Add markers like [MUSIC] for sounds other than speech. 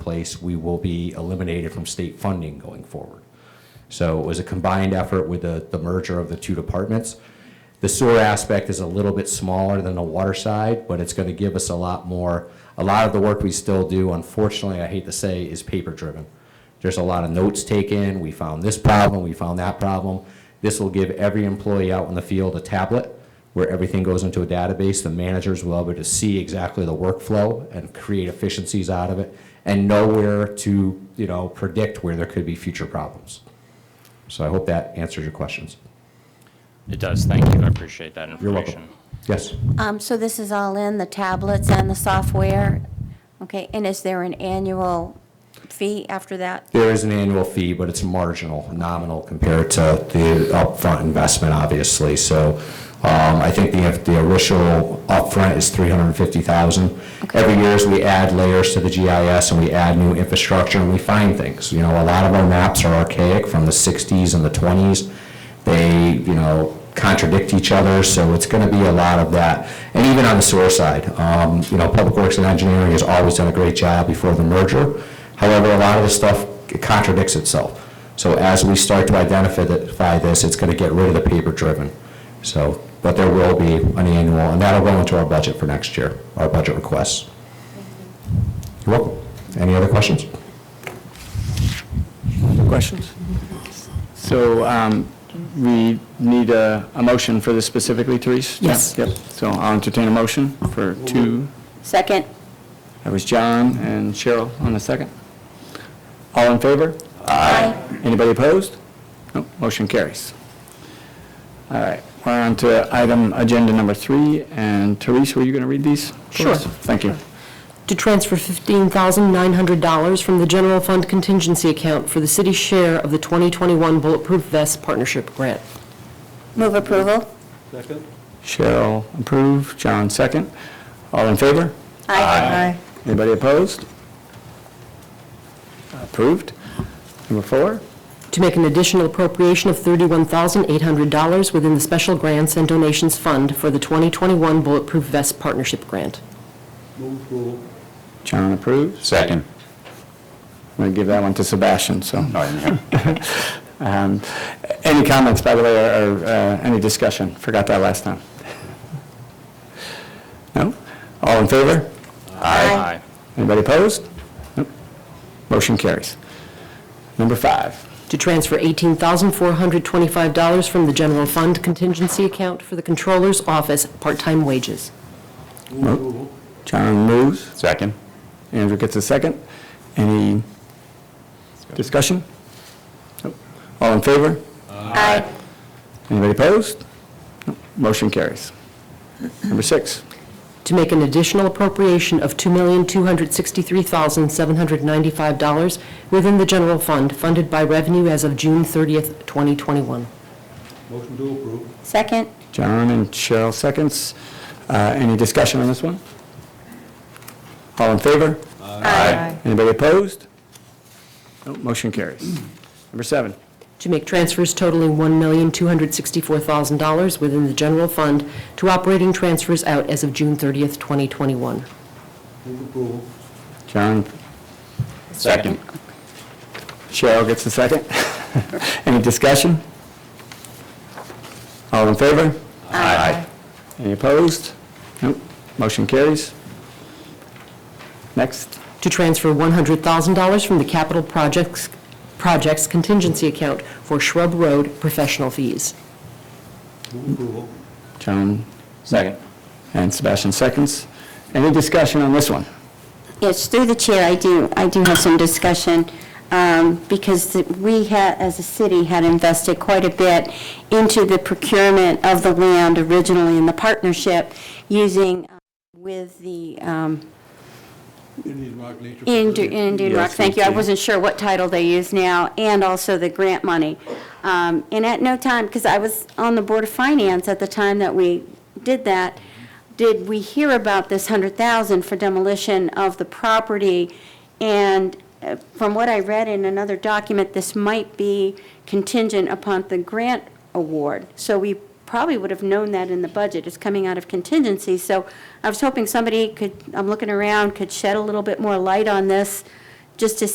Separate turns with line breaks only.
place, we will be eliminated from state funding going forward. So it was a combined effort with the, the merger of the two departments. The sewer aspect is a little bit smaller than the water side, but it's gonna give us a lot more. A lot of the work we still do, unfortunately, I hate to say, is paper-driven. There's a lot of notes taken, we found this problem, we found that problem. This will give every employee out in the field a tablet where everything goes into a database. The managers will be able to see exactly the workflow and create efficiencies out of it and know where to, you know, predict where there could be future problems. So I hope that answers your questions.
It does, thank you, I appreciate that
You're
information.
welcome. Yes.
Um, so this is all in, the tablets and the software? Okay, and is there an annual fee after that?
There is an annual fee, but it's marginal, nominal compared to the upfront investment, obviously. So um, I think the the initial upfront is 350,000. Every year, as we add layers to the GIS and we add new infrastructure, and we find things. You know, a lot of our maps are archaic from the 60s and the 20s. They, you know, contradict each other, so it's going to be a lot of that. And even on the sewer side, um, you know, Public Works and Engineering has always done a great job before the merger. However, a lot of the stuff contradicts itself. So as we start to identify th- by this, it's going to get rid of the paper-driven. So, but there will be an annual, and that'll go into our budget for next year, our budget requests. You're welcome. Any other questions?
Questions? So um, we need a, a motion for this specifically, Therese?
Yes.
Yep, so I'll entertain a motion for two,
Second?
that was John and Cheryl on the second. All in favor?
Aye.
Anybody opposed? No, motion carries. All right, we're on to item agenda number three, and Therese, were you going to read these? for
Sure.
us? Thank you.
to transfer $15,900 from the general fund contingency account for the city's share of the 2021 Bulletproof Vest Partnership Grant.
Move approval?
Cheryl approve, John second. All in favor?
Aye.
Anybody opposed? Approved. Number four,
To make an additional appropriation of $31,800 within the Special Grants and Donations Fund for the 2021 Bulletproof Vest Partnership Grant.
John approves.
Second.
I'm going to give that one to Sebastian, so. [LAUGHS] Um, Any comments, by the way, or or, uh, any discussion? Forgot that last time. No? All in favor?
Aye.
Anybody opposed? Nope. Motion carries. Number five,
To transfer $18,425 from the general fund contingency account for the Controller's Office part-time wages.
John moves.
Second.
Andrew gets a second. Any discussion? Nope. All in favor?
Aye.
Anybody opposed? Nope. Motion carries. Number six,
to make an additional appropriation of $2,263,795 within the general fund, funded by revenue as of June 30th, 2021.
Second?
John and Cheryl seconds. Uh, Any discussion on this one? All in favor?
Aye.
Anybody opposed? Nope. Motion carries. Number seven,
To make transfers totaling $1,264,000 within the general fund to operating transfers out as of June 30th, 2021.
John,
Second.
Cheryl gets a second. [LAUGHS] Any discussion? All in favor?
Aye.
Any opposed? Nope. Motion carries. Next,
To transfer $100,000 from the capital projects projects contingency account for Shrub Road professional fees.
John
Second.
and Sebastian seconds. Any discussion on this one?
Yes, through the chair, I do, I do have some discussion, um, because the- we had, as a city, had invested quite a bit into the procurement of the land originally in the partnership, using uh, with the, um,
Indian Rock Nature
Indu- Indian Rock,
Yes,
thank you. I
indeed.
wasn't sure what title they use now, and also the grant money. Um, And at no time, because I was on the Board of Finance at the time that we did that, did we hear about this 100,000 for demolition of the property? And uh, from what I read in another document, this might be contingent upon the grant award. So we probably would have known that in the budget, it's coming out of contingency. So I was hoping somebody could, I'm looking around, could shed a little bit more light on this just to